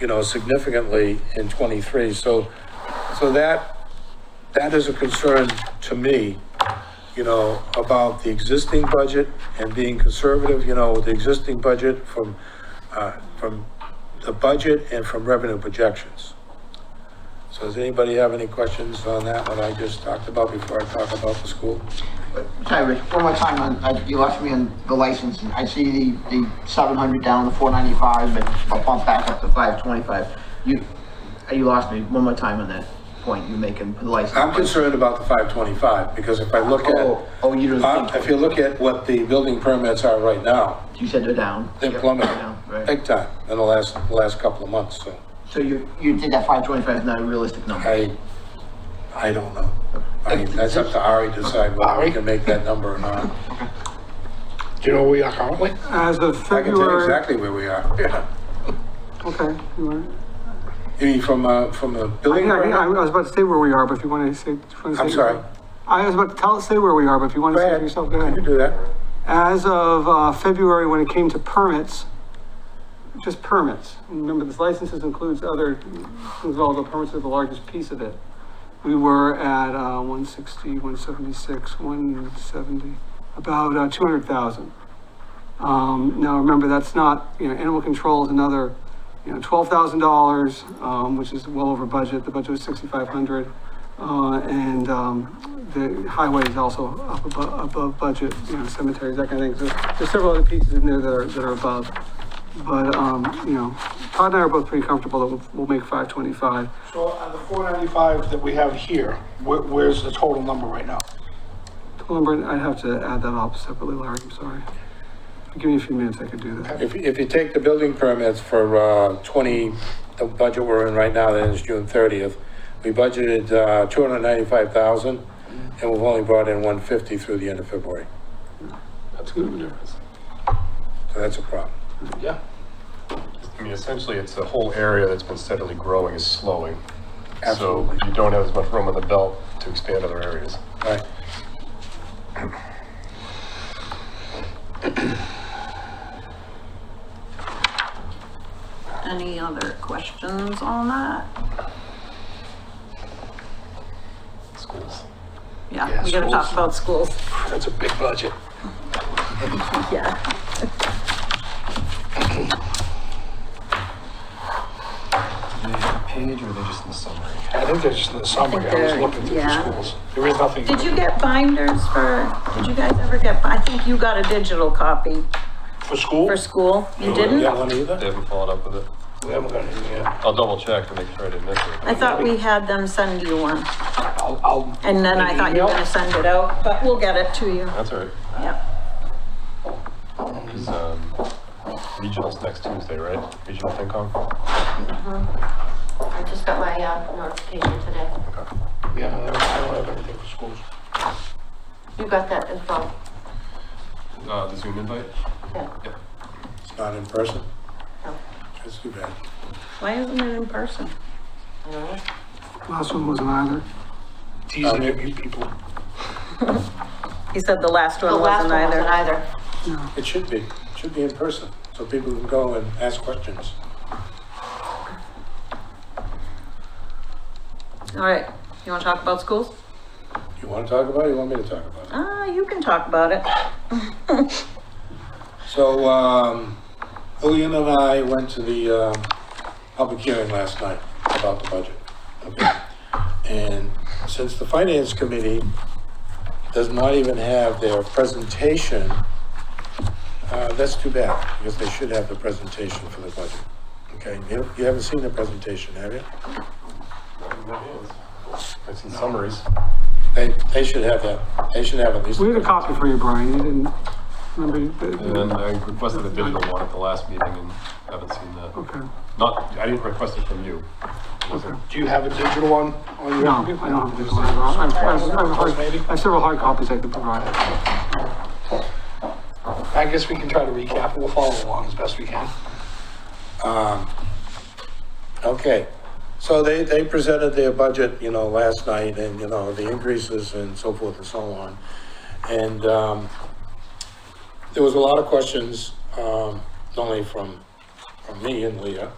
you know, significantly in '23. So, so that, that is a concern to me, you know, about the existing budget and being conservative, you know, with the existing budget from, uh, from the budget and from revenue projections. So does anybody have any questions on that, what I just talked about before I talk about the school? Sorry, Rich, one more time, on- I- you left me on the licensing. I see the, the seven hundred down to four ninety-five, but I'll bump back up to five twenty-five. You, uh, you lost me, one more time on that point you're making, for the license. I'm concerned about the 525, because if I look Oh, at, oh, you Uh, don't if you think, look at what the building permits are right now, you said they're down. they're Yep, plummeting, down, Right, big time, in the last, last couple of months, so so you, you think that five twenty-five is not a realistic number? I, I don't know. I mean, that's up to Ari to decide whether we can make that number or not. Do you know where we are currently? As of I can tell you February, exactly where we are, yeah. okay. you want- You mean from, uh, from the I building think I can- I permit? was about to say where we are, but if you want to say. if you wanna I'm say- sorry. I was about to tell, say where we are, but if you want Go to say it ahead, yourself, go you can ahead. do that. As of uh, February, when it came to permits, just permits, remember this licenses includes other, includes all the permits are the largest piece of it. We were at uh, 160, 176, 170, about uh, 200,000. Um, Now, remember, that's not, you know, animal control is another, you know, $12,000, um, which is well over budget. The budget was 6,500. uh, And um, the highway is also up above, above budget, you know, cemeteries, that kind of thing. So There's several other pieces in there that are, that are above. But, um, you know, Todd and I are both pretty comfortable that we'll, we'll make 525. So on the four ninety-five that we have here, where, where's the total number right now? Lumber, I'd have to add that up separately, Larry, I'm sorry. If you Give me a few minutes, I could do that. If, if you take the building permits for, uh, twenty, the budget we're in right now, that ends June thirtieth, we budgeted, uh, two hundred ninety-five thousand, and we've only brought in one fifty through the end of February, That's good of a difference. so that's a problem. Yeah. I mean, essentially, it's the whole area that's been steadily growing is slowing. Absolutely. So you don't have as much room on the belt to expand other areas. Right. Any other questions on that? Schools. Yeah, Yeah, we gotta talk schools. about schools. That's a big budget. Yeah. Page or are they just in the summary? I think that's just in the summary, I was they're- looking through the yeah. schools. There is nothing. Did you get binders for, did you guys ever get, I think you got a digital copy For school? for school. You We didn't? got one either? They haven't followed up with it. We haven't got anything yet. I'll double check to make sure I didn't miss it. I thought we had them send you one I'll, I'll. and then I thought you were gonna send it out, but we'll get it to you. That's all right. Yep. Because um, regionals next Tuesday, right? Regional FinCom. I just got my uh, notification today. Yeah, I don't have anything for schools. You got that as well? Uh, the Zoom invite. Yeah. Yeah. It's not in person? No. That's too bad. Why isn't it in person? No. Last one wasn't either. Teasing at you people. He said the last The one last wasn't one either. wasn't either. It should be, it should be in person, so people can go and ask questions. All right, you wanna talk about schools? You wanna talk about it, you want me to talk about it? Ah, you can talk about it. So, um, Lillian and I went to the, um, public hearing last night about the budget. Okay. And since the finance committee does not even have their presentation, uh, that's too bad, because they should have the presentation for the budget. Okay, you, you haven't seen the presentation, have you? I've seen summaries. They, they should have that, they should have at least. We had a copy for you, Brian, you didn't, remember? you- And then I requested a digital one at the last meeting and haven't seen that. Okay, Not, I didn't request it from you. okay. Do you have a digital one on your? No, I don't have this one. I have, I have hard- I have several hard copies I could provide. I guess we can try to recap, we'll follow along as best we can. Um, Okay, so they, they presented their budget, you know, last night and, you know, the increases and so forth and so on. And um, there was a lot of questions, um, not only from, from me and Leah,